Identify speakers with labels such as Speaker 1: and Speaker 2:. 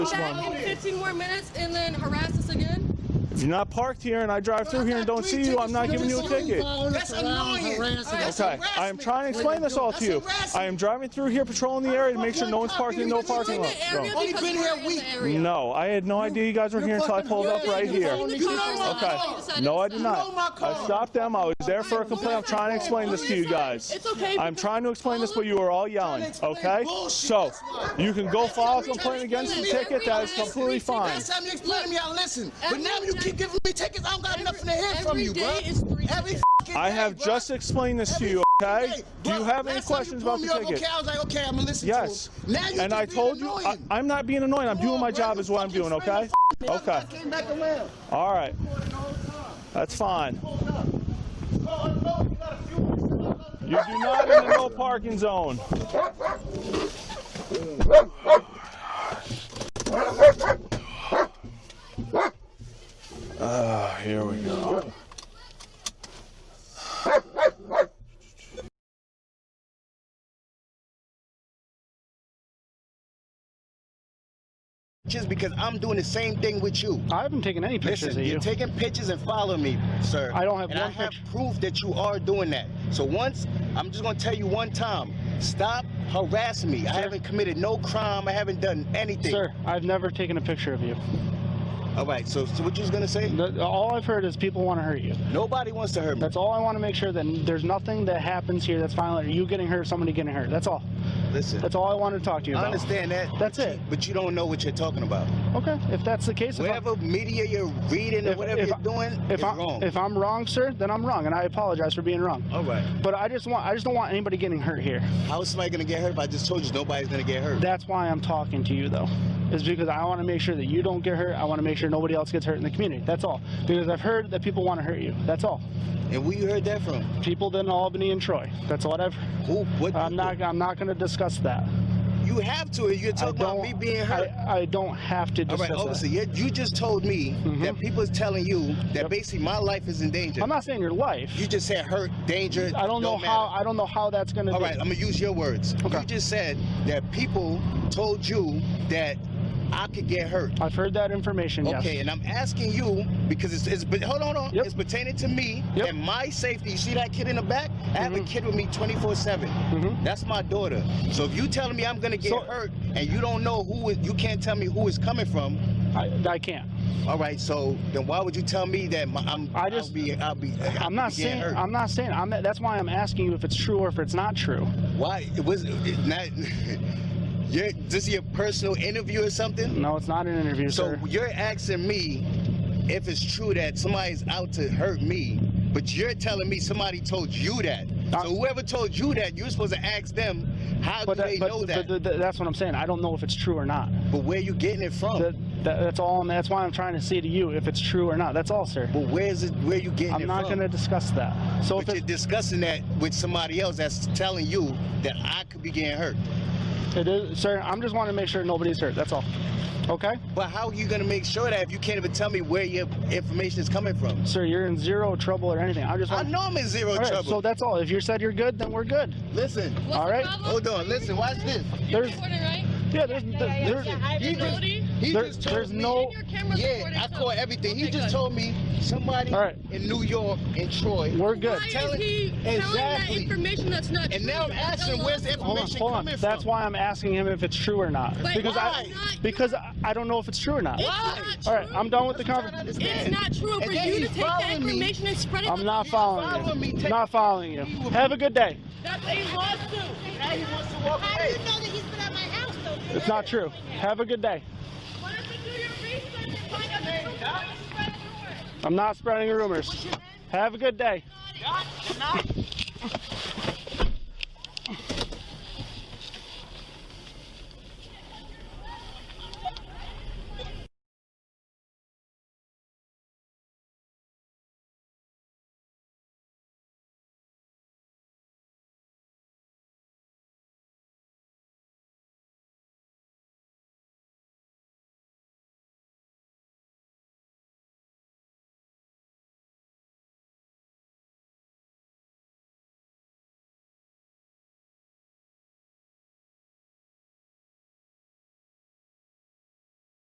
Speaker 1: back in 15 more minutes and then harass us again?
Speaker 2: You're not parked here and I drive through here and don't see you, I'm not giving you a ticket.
Speaker 3: That's annoying.
Speaker 2: Okay, I am trying to explain this all to you. I am driving through here patrolling the area to make sure no one's parked in no parking
Speaker 1: In
Speaker 2: lot.
Speaker 1: the area
Speaker 3: Only
Speaker 1: because
Speaker 3: been
Speaker 1: we're
Speaker 3: here a
Speaker 1: in the
Speaker 3: week.
Speaker 1: area.
Speaker 2: No, I had no idea you guys were here until I pulled up right here.
Speaker 3: You know my
Speaker 2: Okay.
Speaker 3: car.
Speaker 2: No, I did
Speaker 3: You know my
Speaker 2: not.
Speaker 3: car.
Speaker 2: I stopped them. I was there for a complaint. I'm trying to explain this to you guys.
Speaker 1: It's okay,
Speaker 2: I'm
Speaker 1: because
Speaker 2: trying to explain this, but you are all yelling,
Speaker 3: explain
Speaker 2: okay?
Speaker 3: bullshit,
Speaker 2: So,
Speaker 3: that's why.
Speaker 2: you can go file a complaint against the ticket. That is completely fine.
Speaker 3: Last time you explained to me, I listened. But
Speaker 1: Every
Speaker 3: now you
Speaker 1: day-
Speaker 3: keep giving me tickets. I don't got nothing to hear from
Speaker 1: every
Speaker 3: you,
Speaker 1: day
Speaker 3: bro.
Speaker 1: is three
Speaker 3: Every
Speaker 1: tickets.
Speaker 3: fucking
Speaker 2: I
Speaker 3: day,
Speaker 2: have
Speaker 3: bruh.
Speaker 2: just explained this to
Speaker 3: Every
Speaker 2: you,
Speaker 3: fucking
Speaker 2: okay?
Speaker 3: day.
Speaker 2: Do you
Speaker 3: Bruh,
Speaker 2: have any
Speaker 3: last time you
Speaker 2: questions about
Speaker 3: pulled
Speaker 2: the
Speaker 3: me over,
Speaker 2: ticket?
Speaker 3: Okay, I was like, okay, I'm gonna listen
Speaker 2: Yes.
Speaker 3: to him. Now you
Speaker 2: And I
Speaker 3: just being
Speaker 2: told you, I-
Speaker 3: annoying.
Speaker 2: I'm not being annoying. I'm doing my
Speaker 3: Bruh,
Speaker 2: job is what I'm
Speaker 3: you
Speaker 2: doing,
Speaker 3: fucking
Speaker 2: okay?
Speaker 3: friend of
Speaker 2: Okay,
Speaker 3: fucking Came back around.
Speaker 2: all right. That's fine. You do not in the no parking zone. Ah, here we go.
Speaker 4: Just because I'm doing the same thing with you.
Speaker 5: I haven't taken any pictures
Speaker 4: Listen,
Speaker 5: of
Speaker 4: you're
Speaker 5: you.
Speaker 4: taking pictures and following me, sir.
Speaker 5: I don't have
Speaker 4: and
Speaker 5: one
Speaker 4: I have
Speaker 5: picture.
Speaker 4: proof that you are doing that. So once, I'm just gonna tell you one time, stop harassing me. I haven't committed no crime. I haven't done anything.
Speaker 5: Sir, I've never taken a picture of you.
Speaker 4: All right. So, so what you was gonna say?
Speaker 5: The, all I've heard is people want to hurt you.
Speaker 4: Nobody wants to hurt me.
Speaker 5: That's all I want to make sure that there's nothing that happens here that's violent. Or you getting hurt, somebody getting hurt. That's all.
Speaker 4: Listen,
Speaker 5: That's all I wanted to talk to you
Speaker 4: I
Speaker 5: about.
Speaker 4: understand that.
Speaker 5: That's it.
Speaker 4: But you don't know what you're talking about.
Speaker 5: Okay. If that's the case, if I'm-
Speaker 4: Whatever media you're reading or
Speaker 5: If-
Speaker 4: whatever
Speaker 5: if
Speaker 4: you're
Speaker 5: I-
Speaker 4: doing
Speaker 5: if
Speaker 4: is
Speaker 5: I'm
Speaker 4: wrong.
Speaker 5: if I'm wrong, sir, then I'm wrong, and I apologize for being wrong.
Speaker 4: all right.
Speaker 5: But I just want I just don't want anybody getting hurt here.
Speaker 4: How is somebody gonna get hurt if I just told you nobody's gonna get hurt?
Speaker 5: That's why I'm talking to you though. Is because I want to make sure that you don't get hurt. I want to make sure nobody else gets hurt in the community. That's all. Because I've heard that people want to hurt you. That's all.
Speaker 4: and where you heard that from?
Speaker 5: People in Albany and Troy. That's what I've.
Speaker 4: Who? What?
Speaker 5: I'm not. I'm not going to discuss that.
Speaker 4: You have to. You're
Speaker 5: I
Speaker 4: talking about
Speaker 5: don't.
Speaker 4: me being hurt.
Speaker 5: I, I don't have to
Speaker 4: All
Speaker 5: discuss
Speaker 4: right,
Speaker 5: that.
Speaker 4: officer, you, you just told me that people is telling you that basically my life is in danger.
Speaker 5: Mm-hmm. I'm not saying your life.
Speaker 4: you just said hurt, danger.
Speaker 5: I don't know
Speaker 4: matter.
Speaker 5: how. I don't know how that's going to
Speaker 4: All
Speaker 5: be.
Speaker 4: right, I'm gonna use your words.
Speaker 5: Okay.
Speaker 4: You just said that people told you that I could get hurt.
Speaker 5: I've heard that information. Yes.
Speaker 4: Okay, and I'm asking you because it's, it's but hold on, hold on.
Speaker 5: Yep.
Speaker 4: it's pertaining to me
Speaker 5: Yep. Mm-hmm.
Speaker 4: and my safety. You see that kid in the back? I have a kid with me 24 7.
Speaker 5: Mhm.
Speaker 4: That's my daughter. So if you telling me I'm gonna get
Speaker 5: So-
Speaker 4: hurt and you don't know who is, you can't tell me who is coming from,
Speaker 5: I, I can't.
Speaker 4: All right, so then why would you tell me that my, I'm?
Speaker 5: I just-
Speaker 4: I'll be. I'll be I'll
Speaker 5: I'm not
Speaker 4: be getting
Speaker 5: saying.
Speaker 4: hurt?
Speaker 5: I'm not saying. I'm. That's why I'm asking you if it's true or if it's not true.
Speaker 4: Why it was it not? You're, this is your personal interview or something.
Speaker 5: No, it's not an interview,
Speaker 4: So
Speaker 5: sir.
Speaker 4: you're asking me if it's true that somebody's out to hurt me, but you're telling me somebody told you that.
Speaker 5: Uh,
Speaker 4: so whoever told you that, you're supposed to ask them how
Speaker 5: But,
Speaker 4: do
Speaker 5: that,
Speaker 4: they
Speaker 5: but,
Speaker 4: know that.
Speaker 5: but th- th- that's what I'm saying. I don't know if it's true or not.
Speaker 4: but where you getting it from?
Speaker 5: That, that, that's all. I'm, that's why I'm trying to say to you if it's true or not. That's all, sir.
Speaker 4: but where's it? Where you getting
Speaker 5: I'm
Speaker 4: it
Speaker 5: not
Speaker 4: from?
Speaker 5: going to discuss that. So if
Speaker 4: But
Speaker 5: it's
Speaker 4: you're discussing that with somebody else that's telling you that I could be getting hurt.
Speaker 5: It is, sir. I'm just wanting to make sure nobody's hurt. That's all. Okay,
Speaker 4: But how are you gonna make sure that if you can't even tell me where your information is coming from?
Speaker 5: sir. You're in zero trouble or anything. I just
Speaker 4: I
Speaker 5: want.
Speaker 4: know I'm in zero
Speaker 5: All right,
Speaker 4: trouble.
Speaker 5: so that's all. If you said you're good, then we're good.
Speaker 4: listen,
Speaker 1: What's
Speaker 5: All
Speaker 1: the
Speaker 5: right.
Speaker 1: problem?
Speaker 4: hold on, listen, watch this.
Speaker 1: You're
Speaker 5: There's,
Speaker 1: recording, right?
Speaker 5: yeah, there's, there's,
Speaker 4: He just,
Speaker 1: Ability?
Speaker 4: he
Speaker 5: There-
Speaker 4: just told
Speaker 5: there's
Speaker 4: me.
Speaker 5: no-
Speaker 1: And your camera's
Speaker 4: Yeah,
Speaker 1: recording,
Speaker 4: I
Speaker 1: too.
Speaker 4: caught everything. he
Speaker 1: Okay,
Speaker 4: just
Speaker 1: good.
Speaker 4: told me somebody
Speaker 5: All right.
Speaker 4: in New York and Troy.
Speaker 5: we're good.
Speaker 1: Why
Speaker 4: Tell
Speaker 1: is
Speaker 4: it-
Speaker 1: he telling that
Speaker 4: Exactly.
Speaker 1: information that's not
Speaker 4: And
Speaker 1: true?
Speaker 4: now I'm
Speaker 1: That's
Speaker 4: asking, where's the
Speaker 1: illogical.
Speaker 5: Hold on,
Speaker 4: information
Speaker 5: hold on.
Speaker 4: coming
Speaker 5: That's
Speaker 4: from?
Speaker 5: why I'm asking him if it's true or not.
Speaker 1: But
Speaker 5: because
Speaker 1: it's
Speaker 5: I,
Speaker 1: not-
Speaker 5: because I, I don't know if it's true or not.
Speaker 1: It's
Speaker 4: Why?
Speaker 1: not
Speaker 5: All right,
Speaker 1: true.
Speaker 5: I'm done with the
Speaker 4: That's what I'm
Speaker 5: conversation.
Speaker 4: trying
Speaker 1: It's
Speaker 4: to understand.
Speaker 1: not true for
Speaker 4: And then
Speaker 1: you to
Speaker 4: he's
Speaker 1: take that
Speaker 4: following me.
Speaker 1: information and spread it.
Speaker 5: I'm not
Speaker 1: to-
Speaker 4: Follow
Speaker 5: following
Speaker 4: me,
Speaker 5: you.
Speaker 4: take-
Speaker 5: Not following you. Have a good day.
Speaker 1: That's a lawsuit.
Speaker 4: Now he wants to walk
Speaker 6: How do
Speaker 4: away.
Speaker 6: you know that he's been at my house though? dude?
Speaker 5: It's not true. Have a good day.
Speaker 1: Why don't you do your research and find out the truth before you spread it to her?
Speaker 5: I'm not spreading rumors. Have a good day.
Speaker 1: Not- not-